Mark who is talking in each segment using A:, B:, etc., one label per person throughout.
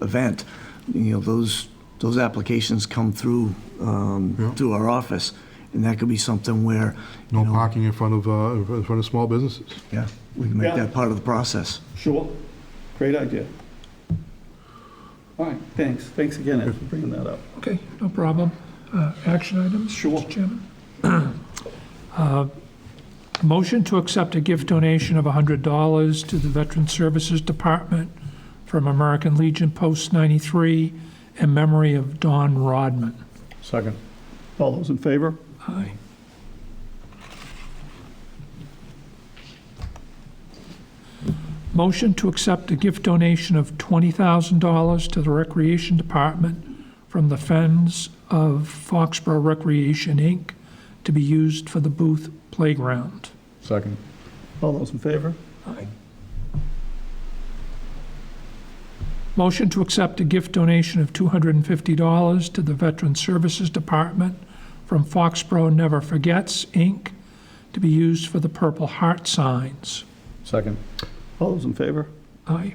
A: event, you know, those, those applications come through, um,
B: Yeah.
A: through our office, and that could be something where, you
B: No
A: know,
B: parking in front of, uh, in front of small businesses.
A: yeah, we can make
C: Yeah.
A: that part of the process.
C: Sure, great idea. All right, thanks, thanks again Ed, for bringing that up.
D: Okay, no problem. Uh, Action items?
C: Sure.
D: Mr. Chairman? Uh, Motion to accept a gift donation of $100 to the Veteran Services Department from American Legion Post 93 in memory of Don Rodman.
C: Second. All those in favor?
D: Aye. Motion to accept a gift donation of $20,000 to the Recreation Department from the Friends of Foxborough Recreation, Inc., to be used for the Booth Playground.
C: Second. All those in favor?
D: Motion to accept a gift donation of $250 to the Veteran Services Department from Foxborough Never Forgets, Inc., to be used for the Purple Heart signs.
C: Second. All those in favor?
D: Aye.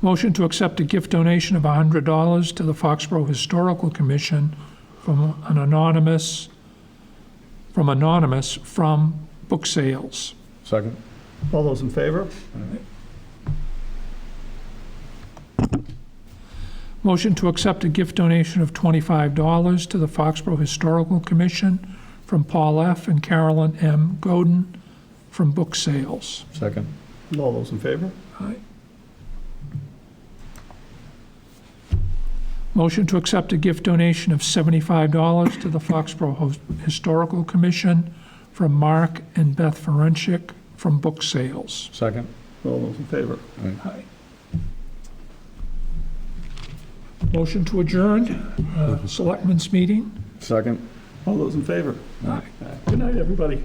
D: Motion to accept a gift donation of $100 to the Foxborough Historical Commission from an anonymous, from anonymous, from book sales.
C: Second. All those in favor?
D: Motion to accept a gift donation of $25 to the Foxborough Historical Commission from Paul F. and Carolyn M. Godin from book sales.
C: Second. All those in favor?
D: Motion to accept a gift donation of $75 to the Foxborough Hos- Historical Commission from Mark and Beth Ferencik from book sales.
C: Second. All those in favor?
D: Motion to adjourn, uh, Selectmen's meeting.
C: Second. All those in favor? Good night, everybody.